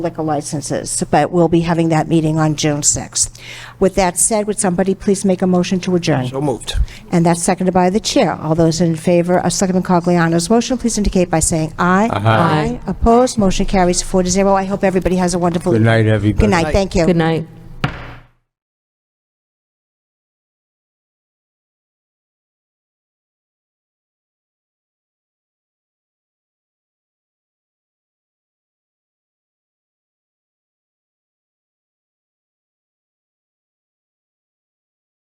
liquor licenses, but we'll be having that meeting on June 6th. With that said, would somebody please make a motion to adjourn? So moved. And that's seconded by the chair. All those in favor of Selectman Cogliano's motion, please indicate by saying aye. Aye. Opposed, motion carries four to zero. I hope everybody has a wonderful. Good night, everybody. Good night, thank you. Good night.